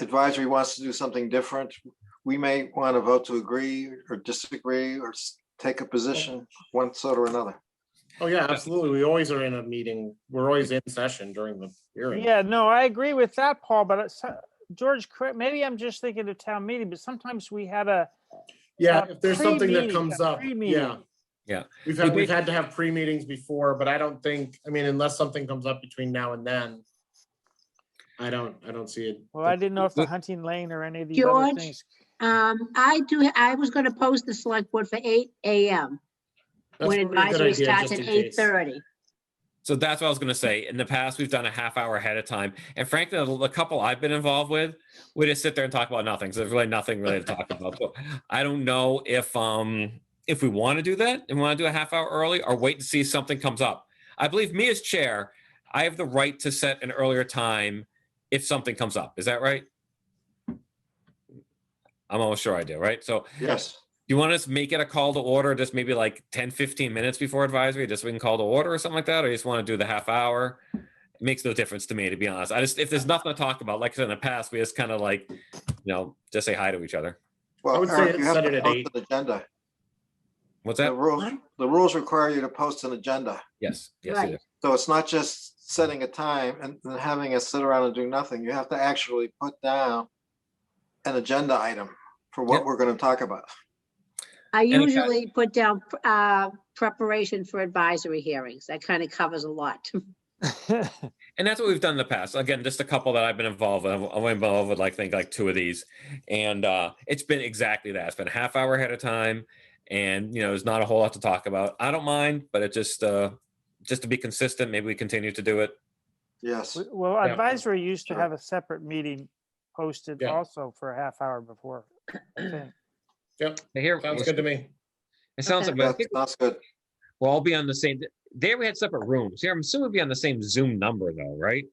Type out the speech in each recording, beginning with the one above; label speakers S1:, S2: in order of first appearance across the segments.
S1: advisory wants to do something different, we may want to vote to agree or disagree or s- take a position one sort or another.
S2: Oh, yeah, absolutely. We always are in a meeting. We're always in session during the hearing.
S3: Yeah, no, I agree with that, Paul, but it's, uh, George, correct- maybe I'm just thinking of town meeting, but sometimes we had a,
S2: Yeah,
S3: Uh,
S2: if there's something that
S3: pre-meeting,
S2: comes
S3: a
S2: up,
S3: pre-meeting.
S2: yeah.
S4: Yeah.
S2: We've had, we've had to have pre-meetings before, but I don't think, I mean, unless something comes up between now and then. I don't, I don't see it.
S3: well, I didn't know if the
S4: Look-
S3: hunting lane or any of the other
S5: George?
S3: things.
S5: Um, I do, I was gonna post the select board for eight AM,
S2: That's
S5: when
S2: probably a good
S5: advisory
S2: idea,
S5: starts
S2: just
S5: at
S2: in case.
S5: eight thirty.
S4: So that's what I was gonna say. In the past, we've done a half hour ahead of time, and frankly, the the couple I've been involved with, we just sit there and talk about nothing. Because there's really nothing really to talk about. So I don't know if um if we want to do that and want to do a half hour early or wait to see if something comes up. I believe me as chair, I have the right to set an earlier time if something comes up. Is that right? I'm almost sure I do, right? So
S1: Yes,
S4: do you want us to make it a call to order just maybe like 10 15 minutes before advisory just so we can call to order or something like that or you just want to do the half hour it makes no difference to me to be honest i just if there's nothing to talk about like I said in the past we just kind of like you know just say hi to each other
S1: well,
S2: would say
S1: Eric, you have
S2: set it
S1: to
S2: at
S1: post
S2: eight.
S1: an agenda.
S4: what's
S1: The
S4: that
S1: rules, the rules require you to post an agenda.
S4: yes yes
S5: Right.
S4: it is.
S1: So it's not just setting a time and then having us sit around and do nothing. You have to actually put down an agenda item for
S4: Yeah.
S1: what we're going to talk about.
S5: I
S4: if I-
S5: usually put down, uh, preparation for advisory hearings. That kind of covers a lot.
S4: and that's what we've done in the past again just a couple that i've been involved with i've I've been involved with like think like two of these and uh it's been exactly that it's been a half hour ahead of time and you know there's not a whole lot to talk about i don't mind but it just uh just to be consistent maybe we continue to do it
S1: Yes,
S3: W- Well,
S4: Yeah.
S3: advisory used to
S4: Sure.
S3: have a separate meeting posted
S2: Yeah.
S3: also for a half hour before. I think.
S2: Yep,
S4: I hear-
S2: sounds good to me.
S4: It sounds
S5: Okay.
S4: like, I
S1: that
S4: think
S1: sounds good.
S4: we'll all be on the same, there we had separate rooms. Here, I'm assuming we'll be on the same Zoom number though, right?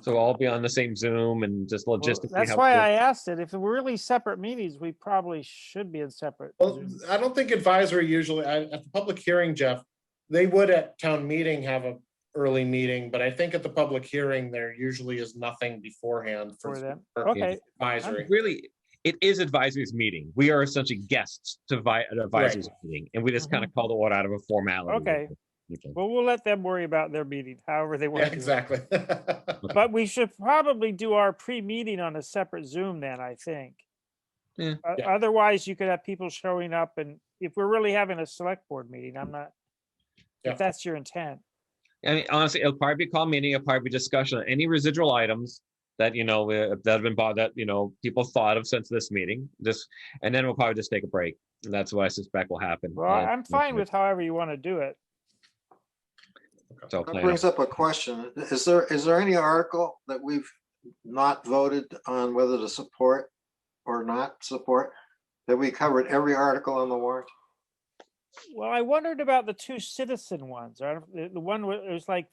S4: So we'll all be on the same Zoom and just
S3: Well,
S4: logistically.
S3: That's
S4: how
S3: why
S4: we'll-
S3: I asked it. If it were really separate meetings, we probably should be in separate.
S2: Well,
S3: Zoom.
S2: I don't think advisory usually, I- at the public hearing, Jeff, they would at town meeting have a early meeting, but I think at the public hearing, there usually is nothing beforehand
S3: For
S2: for
S3: them.
S2: for
S3: Okay,
S2: advisory.
S4: Really, it is advisory's meeting. We are essentially guests to vi- an advisory's meeting and we just kind of call the order out of a formality.
S3: Uh-huh. Okay.
S4: Okay.
S3: well, we'll let them worry about their meeting, however they
S2: Yeah,
S3: want to.
S2: exactly.
S3: But we should probably do our pre-meeting on a separate Zoom then, I think.
S4: Yeah.
S3: O-
S2: Yeah.
S3: Otherwise, you could have people showing up and if we're really having a select board meeting, I'm not,
S2: Yeah.
S3: if that's your intent.
S4: I mean, honestly, it'll probably be a call meeting, it'll probably be discussion, on any residual items that, you know, uh, that have been bought, that, you know, people thought of since this meeting, this, and then we'll probably just take a break. And That's what I suspect will happen.
S3: Well,
S4: uh,
S3: I'm fine with however you want to do it.
S4: So
S1: That
S4: plan
S1: brings up a question. Is there, is there any article that we've not voted on whether to support or not support? That we covered every article on the warrant?
S3: Well, I wondered about the two citizen ones, or the, the one where it was like.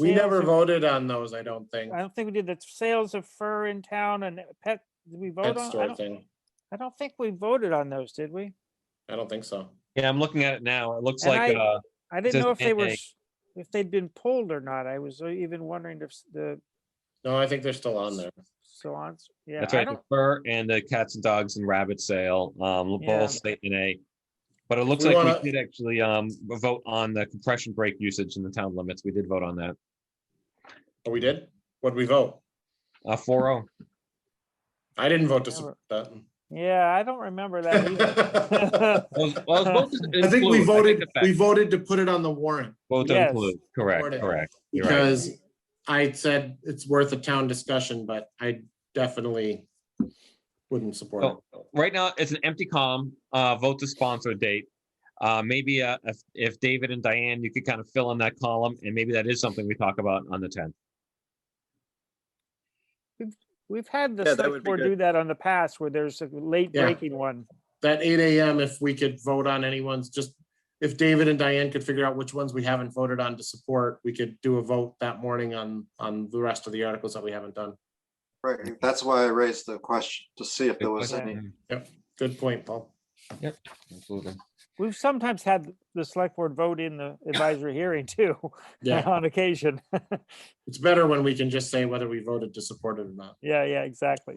S2: We
S3: sales
S2: never
S3: of-
S2: voted on those, I don't think.
S3: I don't think we did the sales of fur in town and pet, did we vote
S2: Pet
S3: on? I
S2: store
S3: don't-
S2: thing.
S3: I don't think we voted on those, did we?
S2: I don't think so.
S4: Yeah, I'm looking at it now. It looks
S3: And
S4: like,
S3: I-
S4: uh,
S3: I didn't
S4: says
S3: know if they were,
S4: NA.
S3: s- if they'd been pulled or not. I was uh, even wondering if s- the
S2: No, I think they're still on there.
S3: so on, yeah,
S4: that's
S3: I
S4: right, the
S3: don't,
S4: fur and the cats and dogs and rabbit sale, um,
S3: Yeah.
S4: both statement A. But it looks
S2: We
S4: like
S2: wanna-
S4: we did actually, um, vote on the compression brake usage in the town limits. We did vote on that.
S2: Oh, we did? What'd we vote?
S4: Uh, four oh.
S2: I didn't vote to
S3: Never.
S2: support that.
S3: yeah, I don't remember that either.
S4: Well, it's- well, it's both to
S2: I think we
S4: include,
S2: voted,
S4: the fact-
S2: we voted to put it on the warrant
S4: Both
S3: Yes.
S4: include, correct,
S2: Supported.
S4: correct. You're right.
S2: because I said it's worth a town discussion, but I definitely wouldn't support it.
S4: So, Right now, it's an empty column, uh, vote to sponsor date. Uh, maybe, uh, if, if David and Diane, you could kind of fill in that column and maybe that is something we talk about on the tenth.
S3: We've had
S6: Yeah,
S3: the
S6: that
S3: select
S6: would be
S3: board
S6: good.
S3: do that on the past where there's a late
S2: Yeah.
S3: breaking one.
S2: That eight AM, if we could vote on anyone's, just if David and Diane could figure out which ones we haven't voted on to support, we could do a vote that morning on, on the rest of the articles that we haven't done.
S1: Right, that's why I raised the question, to see if there was any.
S2: Good point, Paul.
S4: Absolutely.
S3: We've sometimes had the select board vote in the advisory hearing too,
S2: Yeah,
S3: on occasion.
S2: it's better when we can just say whether we voted to support it or not.
S3: Yeah, yeah, exactly.